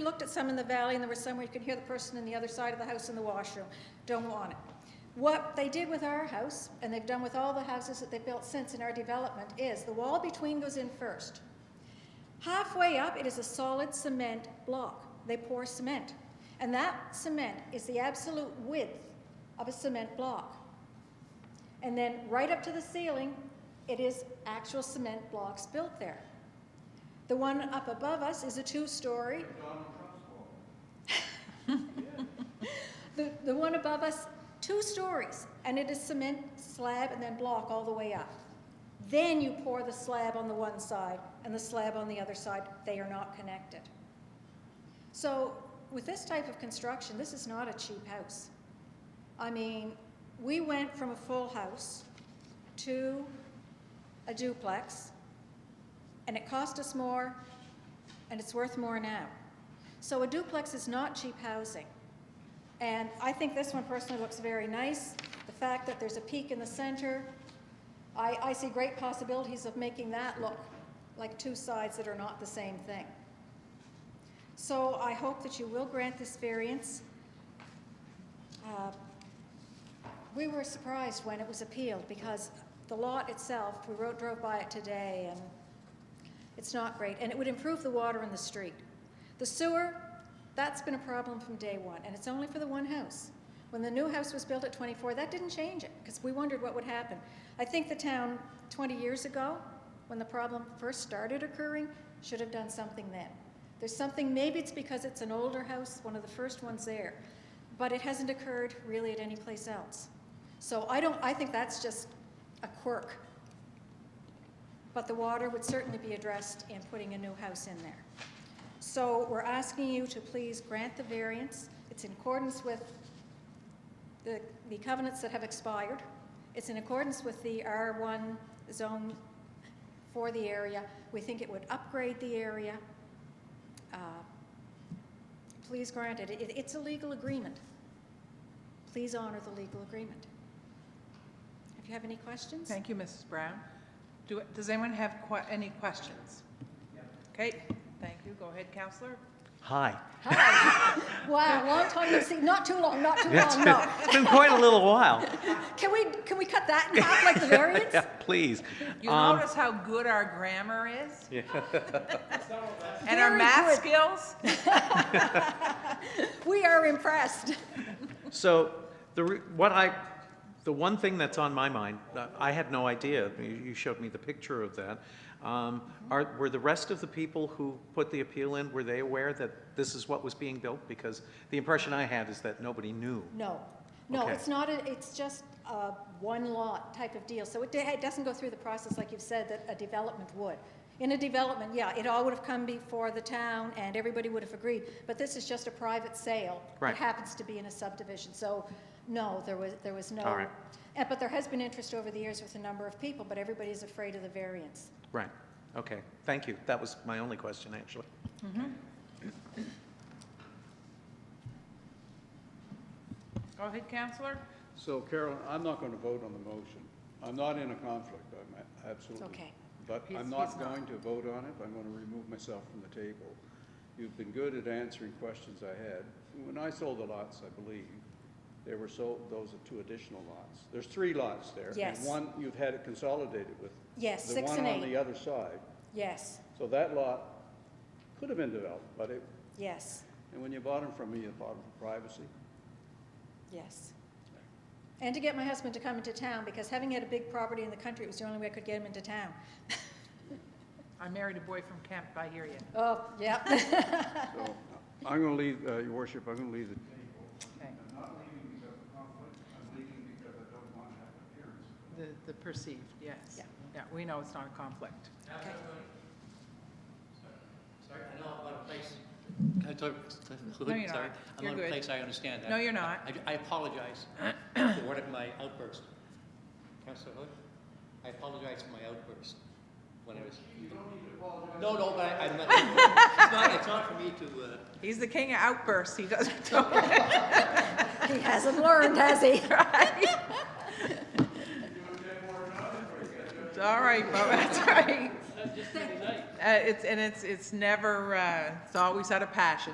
looked at some in the valley, and there were some where you could hear the person in the other side of the house in the washroom. Don't want it. What they did with our house, and they've done with all the houses that they've built since in our development, is the wall between goes in first. Halfway up, it is a solid cement block. They pour cement. And that cement is the absolute width of a cement block. And then right up to the ceiling, it is actual cement blocks built there. The one up above us is a two-story. The, the one above us, two stories, and it is cement slab and then block all the way up. Then you pour the slab on the one side and the slab on the other side. They are not connected. So with this type of construction, this is not a cheap house. I mean, we went from a full house to a duplex, and it cost us more, and it's worth more now. So a duplex is not cheap housing. And I think this one personally looks very nice. The fact that there's a peak in the center, I, I see great possibilities of making that look like two sides that are not the same thing. So I hope that you will grant this variance. Uh, We were surprised when it was appealed because the lot itself, we rode, drove by it today and it's not great, and it would improve the water in the street. The sewer, that's been a problem from day one, and it's only for the one house. When the new house was built at 24, that didn't change it, because we wondered what would happen. I think the town, 20 years ago, when the problem first started occurring, should have done something then. There's something, maybe it's because it's an older house, one of the first ones there, but it hasn't occurred really at any place else. So I don't, I think that's just a quirk but the water would certainly be addressed in putting a new house in there. So we're asking you to please grant the variance. It's in accordance with the the covenants that have expired. It's in accordance with the R1 zone for the area. We think it would upgrade the area. Uh, Please grant it. It- It's a legal agreement. Please honor the legal agreement. If you have any questions? Thank you, Mrs. Brown. Do, does anyone have que, any questions? Okay, thank you. Go ahead, Counselor. Hi. Hi. Wow, long time no see. Not too long, not too It's long, been, Oh, no. it's been quite a little while. Can we, can we cut that in half like the variance? Yeah, please. You Um, notice how good our grammar is? And Very our math good. skills? We are impressed. So the, re- what I, the one thing that's on my mind, uh, I had no idea, you- you showed me the picture of that. Um, Are, were the rest of the people who put the appeal in, were they aware that this is what was being built? Because the impression I had is that nobody knew. No, no, Okay. it's not, a. it's just a one lot type of deal. So it, it doesn't go through the process like you've said that a development would. In a development, yeah, it all would have come before the town and everybody would have agreed. But this is just a private sale. Right. It happens to be in a subdivision. So, no, there was, there was no. All right. Eh, But there has been interest over the years with a number of people, but everybody is afraid of the variance. Right, okay, thank you. That was my only question, actually. Go ahead, Counselor. So Carolyn, I'm not going to vote on the motion. I'm not in a conflict, I'm a- absolutely. okay. But He's- I'm he's not not. going to vote on it, I'm going to remove myself from the table. You've been good at answering questions I had. When I sold the lots, I believe, they were sold, those are two additional lots. There's three lots there. Yes. And one, you've had it consolidated with. Yes, six and The one on eight. the other side. Yes, So that lot could have been developed, but it, yes, and when you bought them from me, you bought them for privacy. yes. And to get my husband to come into town, because having had a big property in the country, it was the only way I could get him into town. I married a boy from Kemp, I hear you. Oh, yeah. So I'm going to leave, uh, Your Worship, I'm going to leave the Okay. The, the perceived, yes. Yeah. Yeah, we know it's not a conflict. Okay. Sorry, I know I'm out of place. Can I talk- No, you're not. Sorry, I'm You're out of good. place, I understand that. No, you're not. I- I apologize for one of my outbursts. Councilor Hood, I apologize for my outburst when I was. You don't need to apologize. No, no, but I, I'm not, it's not, it's not for me to, uh, He's the king of outbursts. He doesn't, He hasn't learned, has he? It's all right, Bo, that's right. Uh, it's, and it's, it's never, uh, it's always out of passion,